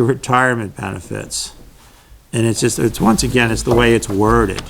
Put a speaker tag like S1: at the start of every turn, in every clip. S1: the retirement benefits. And it's just, it's, once again, it's the way it's worded.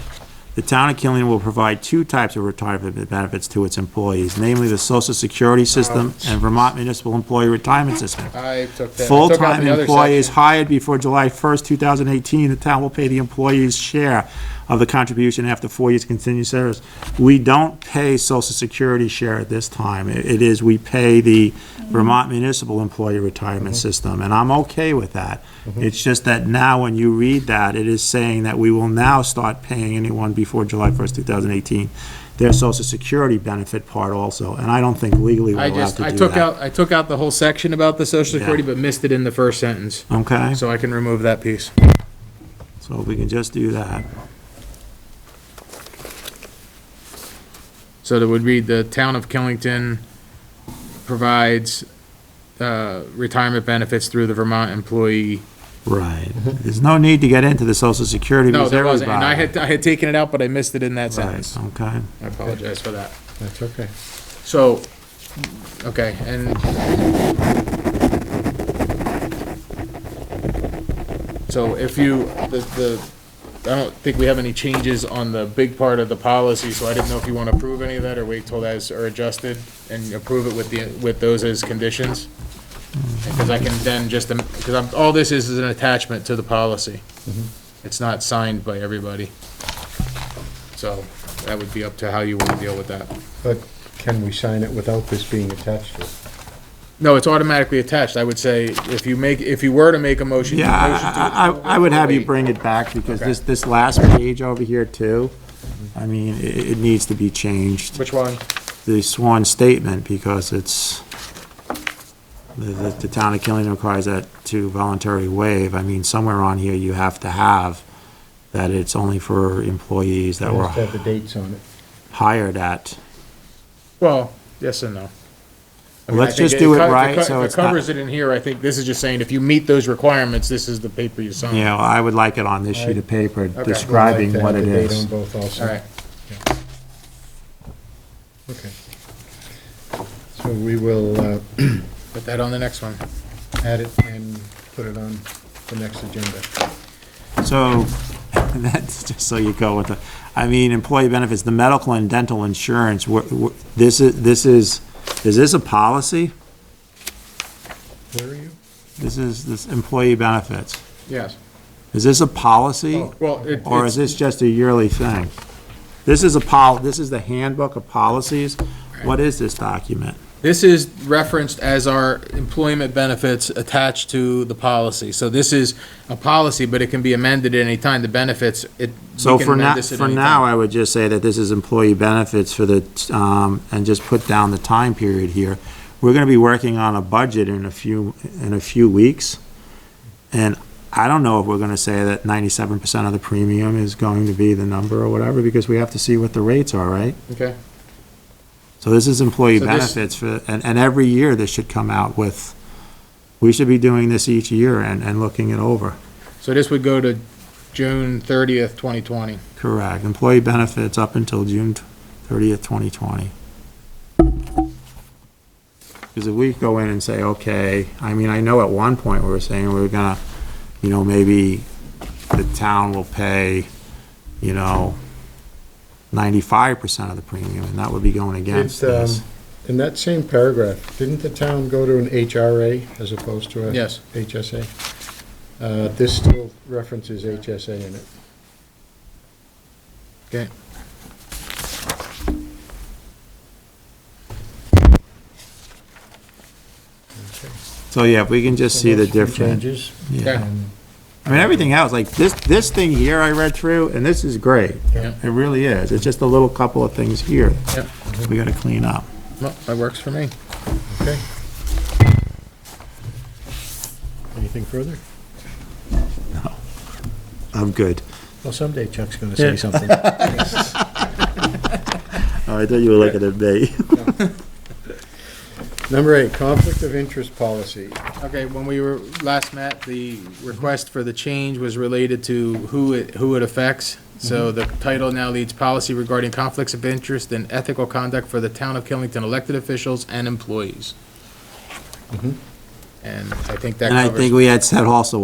S1: The town of Killeen will provide two types of retirement benefits to its employees, namely the social security system and Vermont municipal employee retirement system.
S2: I took that. I took out
S1: Full-time
S2: the other
S1: employees
S2: section.
S1: hired before July 1st, 2018, the town will pay the employee's share of the contribution after four years continued service. We don't pay social security share at this time. It it is, we pay the Vermont Municipal Employee Retirement
S2: Mm-hmm.
S1: System, and I'm okay with that. It's just that now, when you read that, it is saying that we will now start paying anyone before July 1st, 2018, their social security benefit part also, and I don't think legally we're
S2: I
S1: allowed to do that.
S2: just, I took out, I took out the whole section about the social
S1: Yeah.
S2: security, but missed it in the first sentence,
S1: Okay,
S2: so I can remove that piece.
S1: so if we can just do that.
S2: So that would read, the town of Killington provides, uh, retirement benefits through the Vermont employee.
S1: Right. There's no need to get into the social security
S2: No,
S1: because
S2: there
S1: everybody.
S2: wasn't, and I had, I had taken it out, but I missed it in that
S1: Right,
S2: sentence.
S1: okay.
S2: I apologize for that.
S3: That's okay.
S2: So, okay, and. So if you, the, the, I don't think we have any changes on the big part of the policy, so I didn't know if you want to approve any of that or wait till that's are adjusted and approve it with the, with those as conditions.
S3: Mm-hmm.
S2: Because I can then just, because I'm, all this is is an attachment to the policy.
S3: Mm-hmm.
S2: It's not signed by everybody. So that would be up to how you want to deal with that.
S3: But can we sign it without this being attached to it?
S2: No, it's automatically attached. I would say if you make, if you were to make a motion.
S1: Yeah, I, I- I, I would have you bring it back because this, this last page over here too, I mean, it, it needs to be changed,
S2: Which one?
S1: the sworn statement, because it's, the, the the town of Killeen requires that to voluntarily waive. I mean, somewhere on here you have to have that it's only for employees that
S3: It
S1: were
S3: has to have the dates on it.
S1: hired at.
S2: Well, yes and no. I mean, I
S1: Let's
S2: think
S1: just do it
S2: co-
S1: right,
S2: co-
S1: so
S2: If
S1: it's
S2: it
S1: not-
S2: covers it in here, I think this is just saying if you meet those requirements, this is the paper you
S1: You
S2: sign.
S1: know, I would like it on this sheet of paper
S3: I'd
S1: describing
S3: like
S1: what
S3: to have
S1: it
S3: the date
S1: is.
S3: on both also.
S2: All right,
S3: Okay. So we will uh,
S2: put that on the next one.
S3: add it and put it on the next agenda.
S1: So, that's just so you go with the, I mean, employee benefits, the medical and dental insurance, wh- wh- this is, this is, is this a policy?
S3: Where are you?
S1: This is, this employee benefits.
S2: Yes. Oh,
S1: Is this a policy?
S2: Well, it-
S1: Or is
S2: it's,
S1: this just a yearly thing? This is a pol, this is the handbook of policies? What is this document?
S2: this is referenced as our employment benefits attached to the policy. So this is a policy, but it can be amended at any time. The benefits, it. we
S1: So
S2: can
S1: for
S2: amend
S1: now,
S2: this at
S1: for
S2: any
S1: now,
S2: time.
S1: I would just say that this is employee benefits for the, t- um, and just put down the time period here. We're gonna be working on a budget in a few, in a few weeks. And I don't know if we're gonna say that ninety-seven percent of the premium is going to be the number or whatever, because we have to see what the rates are, right?
S2: Okay.
S1: So this is employee
S2: So this-
S1: benefits for, and, and every year this should come out with, we should be doing this each year and, and looking it over.
S2: So this would go to June thirtieth, twenty twenty.
S1: Correct. Employee benefits up until June thirtieth, twenty twenty. Because if we go in and say, okay, I mean, I know at one point we were saying we were gonna, you know, maybe the town will pay, you know, ninety-five percent of the premium, and that would be going against
S3: It's, um,
S1: this.
S3: In that same paragraph, didn't the town go to an HRA as opposed to a?
S2: Yes.
S3: HSA? Uh, This still references HSA in it.
S2: Okay.
S1: So, yeah, if we can just see the
S3: Unless we
S1: difference.
S3: Changes.
S1: Yeah.
S2: Okay.
S3: Um,
S1: I mean, everything else, like this, this thing here I read through, and this is great.
S2: Yeah.
S1: It really is. It's just a little couple of things here
S2: Yep.
S1: we gotta clean up.
S2: Well, that works for me.
S3: Okay. Anything further?
S1: I'm good.
S3: Well, someday Chuck's going to say something.
S1: Oh, I thought you were looking at me.
S3: Number eight, conflict of interest policy.
S2: Okay, when we were last met, the request for the change was related to who it, who it affects. So the title now reads Policy Regarding Conflicts of Interest and Ethical Conduct for the Town of Killington Elected Officials and Employees. And I think that
S1: And I
S2: covers.
S1: think we had said also